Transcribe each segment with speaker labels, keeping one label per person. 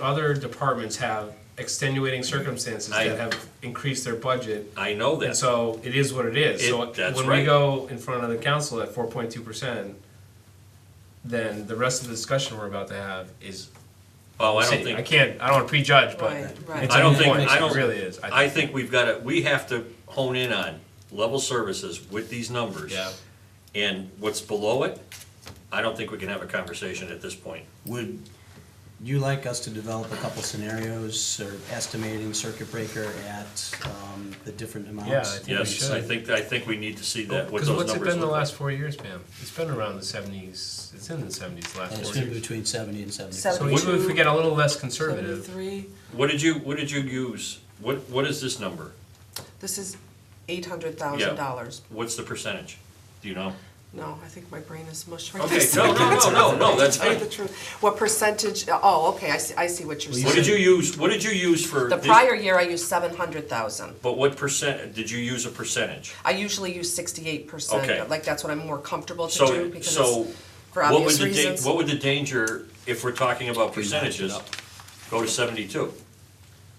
Speaker 1: Other departments have extenuating circumstances
Speaker 2: I-
Speaker 1: that have increased their budget,
Speaker 2: I know
Speaker 1: and
Speaker 2: that.
Speaker 1: so it is what it is.
Speaker 2: It-
Speaker 1: So
Speaker 2: that's
Speaker 1: when we
Speaker 2: right.
Speaker 1: go in front of the council at four point two percent, then the rest of the discussion we're about to have is.
Speaker 2: Oh, I don't
Speaker 1: city. I
Speaker 2: think,
Speaker 1: can't, I don't wanna prejudge, but
Speaker 3: Right,
Speaker 1: it's
Speaker 3: right.
Speaker 1: a
Speaker 2: I don't
Speaker 1: moot
Speaker 2: think,
Speaker 1: point.
Speaker 2: I don't.
Speaker 1: It really is.
Speaker 2: I think we've got to, we have to hone in on level services with these numbers.
Speaker 1: Yeah.
Speaker 2: And what's below it, I don't think we can have a conversation at this point.
Speaker 4: Would you like us to develop a couple scenarios or estimating circuit breaker at um, the different amounts?
Speaker 1: Yeah, I think we
Speaker 2: Yes, I
Speaker 1: should.
Speaker 2: think, I think we need to see that, what
Speaker 1: Because
Speaker 2: those
Speaker 1: what's it
Speaker 2: numbers
Speaker 1: been the
Speaker 2: look
Speaker 1: last
Speaker 2: like.
Speaker 1: four years, Pam? It's been around the seventies, it's in the seventies, the
Speaker 4: And
Speaker 1: last
Speaker 4: It's
Speaker 1: four
Speaker 4: gonna be
Speaker 1: years.
Speaker 4: between seventy and seventy-five.
Speaker 1: So even if we get a little less conservative,
Speaker 3: Seventy-three,
Speaker 2: What did you, what did you use? What, what is this number?
Speaker 3: this is eight hundred thousand dollars.
Speaker 2: What's the percentage? Do you know?
Speaker 3: No, I think my brain is mush right now.
Speaker 2: Okay, no, no, no, no, no, that's
Speaker 3: Tell you
Speaker 2: fine.
Speaker 3: the truth. What percentage, oh, okay, I see, I see what you're
Speaker 2: What did
Speaker 3: saying.
Speaker 2: you use, what did you use for?
Speaker 3: The
Speaker 2: this-
Speaker 3: prior year, I used seven hundred thousand.
Speaker 2: But what percent, did you use a percentage?
Speaker 3: I usually use sixty-eight percent,
Speaker 2: Okay.
Speaker 3: like that's what I'm more comfortable to do
Speaker 2: So,
Speaker 3: because
Speaker 2: so
Speaker 3: it's for
Speaker 2: what would
Speaker 3: obvious
Speaker 2: the da-
Speaker 3: reasons.
Speaker 2: what would the danger, if we're talking about
Speaker 4: We match it
Speaker 2: percentages,
Speaker 4: up.
Speaker 2: go to seventy-two?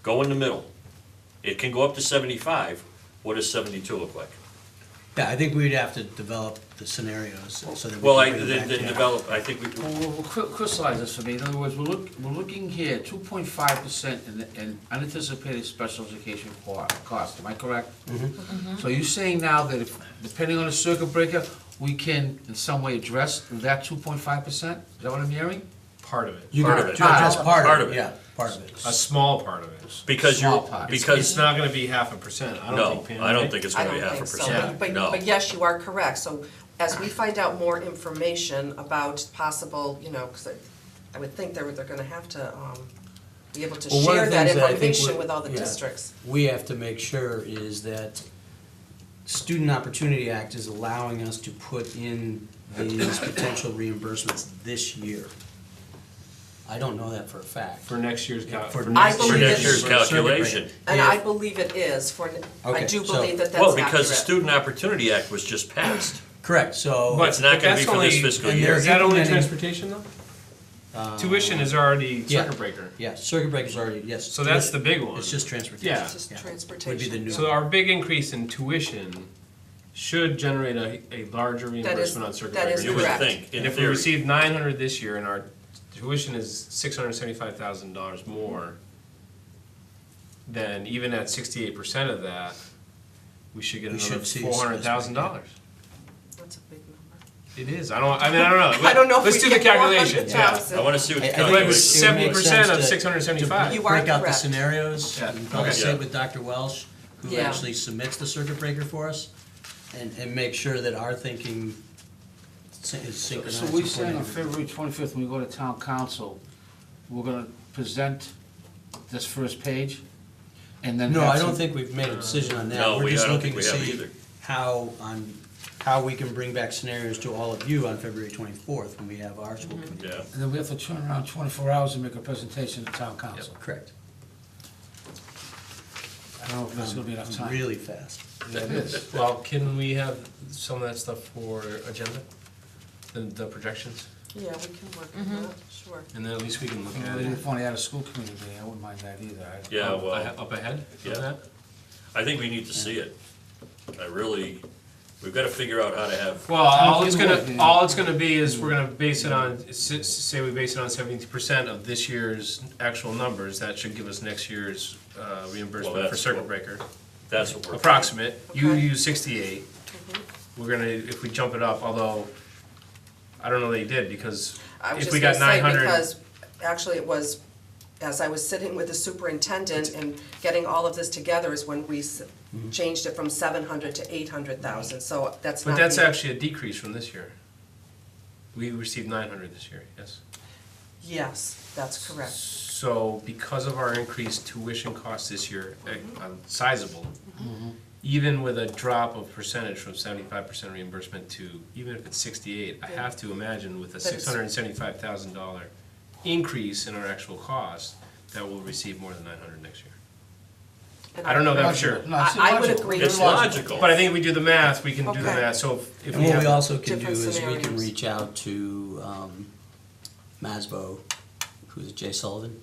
Speaker 2: Go in the middle. It can go up to seventy-five. What does seventy-two look like?
Speaker 4: Yeah, I think we'd have to develop the scenarios so that we
Speaker 2: Well, I,
Speaker 4: can bring it
Speaker 2: then,
Speaker 4: back to
Speaker 2: then
Speaker 4: you.
Speaker 2: develop, I think we,
Speaker 5: Well, Well, well, cry- crystallize this for me, in other words, we're look, we're looking here, two point five percent in, the- in unanticipated special education co- cost, am I correct?
Speaker 4: Mm-hmm.
Speaker 5: So you're saying now that if, depending on the circuit breaker, we can in some way address that two point five percent, is that what I'm hearing?
Speaker 1: part of it,
Speaker 4: You
Speaker 2: Part
Speaker 4: can
Speaker 2: of it.
Speaker 4: address part
Speaker 2: Part
Speaker 4: of
Speaker 2: of it.
Speaker 4: it, yeah, part of it.
Speaker 1: a small part of it.
Speaker 2: because
Speaker 5: Small
Speaker 2: you're,
Speaker 5: pox.
Speaker 1: It's
Speaker 2: because,
Speaker 1: not gonna be half a percent, I don't
Speaker 2: no,
Speaker 1: think, Pam.
Speaker 2: I don't
Speaker 1: right?
Speaker 2: think it's
Speaker 3: I
Speaker 2: gonna be
Speaker 3: don't
Speaker 2: half a
Speaker 3: think so,
Speaker 2: percent,
Speaker 3: but,
Speaker 2: no.
Speaker 3: but yes, you are correct, so as we find out more information about possible, you know, cause I, I would think they're, they're gonna have to, um, be able to
Speaker 4: Well, one
Speaker 3: share
Speaker 4: of the
Speaker 3: that
Speaker 4: things I think
Speaker 3: information
Speaker 4: we-
Speaker 3: with all the
Speaker 4: yeah,
Speaker 3: districts.
Speaker 4: We have to make sure is that Student Opportunity Act is allowing us to put in these potential reimbursements this year. I don't know that for a fact.
Speaker 1: For next year's. cal-
Speaker 4: For
Speaker 1: for next-
Speaker 3: I
Speaker 4: next
Speaker 3: believe
Speaker 2: For next
Speaker 3: it-
Speaker 2: year's calculation.
Speaker 3: And I believe it is for, I
Speaker 4: Okay,
Speaker 3: do
Speaker 4: so-
Speaker 3: believe that that's accurate.
Speaker 2: Well, because the Student Opportunity Act was just passed.
Speaker 4: Correct, so.
Speaker 1: But-
Speaker 2: It's not gonna be
Speaker 1: that's
Speaker 2: for this
Speaker 1: only-
Speaker 2: fiscal
Speaker 4: and
Speaker 2: year.
Speaker 1: Is that only
Speaker 4: Implementing-
Speaker 1: transportation though?
Speaker 4: uh,
Speaker 1: Tuition is already
Speaker 4: yeah.
Speaker 1: circuit breaker,
Speaker 4: Yeah, circuit breaker's already, yes.
Speaker 1: so that's the big one.
Speaker 4: It's just transportation.
Speaker 1: Yeah.
Speaker 3: It's just
Speaker 4: Yeah.
Speaker 3: transportation.
Speaker 4: Would be the new.
Speaker 1: So our big increase in tuition should generate a, a larger reimbursement on circuit
Speaker 3: that
Speaker 1: breaker.
Speaker 3: is
Speaker 2: You would
Speaker 3: Correct.
Speaker 2: think,
Speaker 1: And
Speaker 2: in
Speaker 1: if we
Speaker 2: theory.
Speaker 1: receive nine hundred this year and our tuition is six hundred seventy-five thousand dollars more, then even at sixty-eight percent of that, we should get
Speaker 4: We
Speaker 1: another
Speaker 4: should see
Speaker 1: four hundred thousand dollars.
Speaker 3: That's a big number.
Speaker 1: It is, I don't, I mean, I don't know.
Speaker 3: I don't know if we
Speaker 1: Let's do the
Speaker 3: get
Speaker 1: calculations, yeah.
Speaker 3: 400,000.
Speaker 2: I wanna see what the
Speaker 4: I- I think it would- it would make
Speaker 2: calculation.
Speaker 4: sense
Speaker 1: 70% of
Speaker 4: to-
Speaker 1: 675.
Speaker 4: to
Speaker 3: You are
Speaker 4: Break out the
Speaker 3: correct.
Speaker 4: scenarios,
Speaker 1: Yeah.
Speaker 4: and conversate
Speaker 2: Okay.
Speaker 4: with Dr. Welsh, who
Speaker 3: Yeah.
Speaker 4: actually submits the circuit breaker for us, and, and make sure that our thinking syn- is synchronized.
Speaker 5: So we're
Speaker 4: with
Speaker 5: saying on
Speaker 4: whatever.
Speaker 5: February twenty-fifth, when we go to town council, we're gonna present this first page, and then.
Speaker 4: No, I
Speaker 5: have
Speaker 4: don't
Speaker 5: some-
Speaker 4: think we've made a decision on that.
Speaker 2: No,
Speaker 4: We're
Speaker 2: we- I
Speaker 4: just
Speaker 2: don't
Speaker 4: looking
Speaker 2: think
Speaker 4: to
Speaker 2: we have
Speaker 4: see
Speaker 2: either.
Speaker 4: how, on, how we can bring back scenarios to all of you on February twenty-fourth, when we have our school
Speaker 5: Mm-hmm.
Speaker 4: committee.
Speaker 2: Yeah,
Speaker 5: And then we have to turn around twenty-four hours and make a presentation to town council.
Speaker 4: Correct.
Speaker 5: I don't know if that's gonna be enough time.
Speaker 4: Um, Really fast.
Speaker 5: That is.
Speaker 1: Well, can we have some of that stuff for agenda, the, the projections,
Speaker 3: Yeah, we can work on that, sure.
Speaker 1: and then at least we can look
Speaker 5: You know,
Speaker 1: at
Speaker 5: they
Speaker 1: it.
Speaker 5: didn't want to add a school committee meeting, I wouldn't mind that either. I-
Speaker 2: yeah,
Speaker 1: up-
Speaker 2: well.
Speaker 1: Up ahead of
Speaker 2: Yeah.
Speaker 1: that?
Speaker 2: I think we need to see it. I really, we've gotta figure out how to have,
Speaker 1: Well, all it's
Speaker 5: Something
Speaker 1: gonna,
Speaker 5: like that.
Speaker 1: all it's gonna be is we're gonna base it on, s- say we base it on seventy percent of this year's actual numbers, that should give us next year's uh, reimbursement for
Speaker 2: that's
Speaker 1: circuit
Speaker 2: what-
Speaker 1: breaker.
Speaker 2: that's what we're,
Speaker 1: Approximate, you
Speaker 3: Okay. Mm-hmm.
Speaker 1: use sixty-eight, we're gonna, if we jump it up, although, I don't know that you did, because
Speaker 3: I was
Speaker 1: if
Speaker 3: just
Speaker 1: we got
Speaker 3: gonna say,
Speaker 1: nine hundred.
Speaker 3: because actually it was, as I was sitting with the superintendent and getting all of this together is when we s- changed it from seven hundred to eight hundred thousand, so that's not.
Speaker 1: But that's
Speaker 3: the-
Speaker 1: actually a decrease from this year. We received nine hundred this year, yes.
Speaker 3: Yes, that's correct.
Speaker 1: So because of our increased tuition costs this year, eh, uh, sizable,
Speaker 4: Mm-hmm.
Speaker 1: even with a drop of percentage from seventy-five percent reimbursement to, even if it's sixty-eight, I have to imagine with a
Speaker 3: But it's-
Speaker 1: six hundred and seventy-five thousand dollar increase in our actual cost, that we'll receive more than nine hundred next year.
Speaker 3: And
Speaker 1: I don't know that for sure.
Speaker 5: Logical. No, it's
Speaker 3: I- I would
Speaker 5: logical.
Speaker 3: agree.
Speaker 2: it's logical.
Speaker 1: But I think if we do the math, we can do the
Speaker 3: Okay.
Speaker 1: math, so if- if
Speaker 4: And
Speaker 1: we
Speaker 4: what we
Speaker 1: have,
Speaker 4: also can do
Speaker 3: different
Speaker 4: is we can
Speaker 3: scenarios.
Speaker 4: reach out to um, Masbo, who's Jay Sullivan,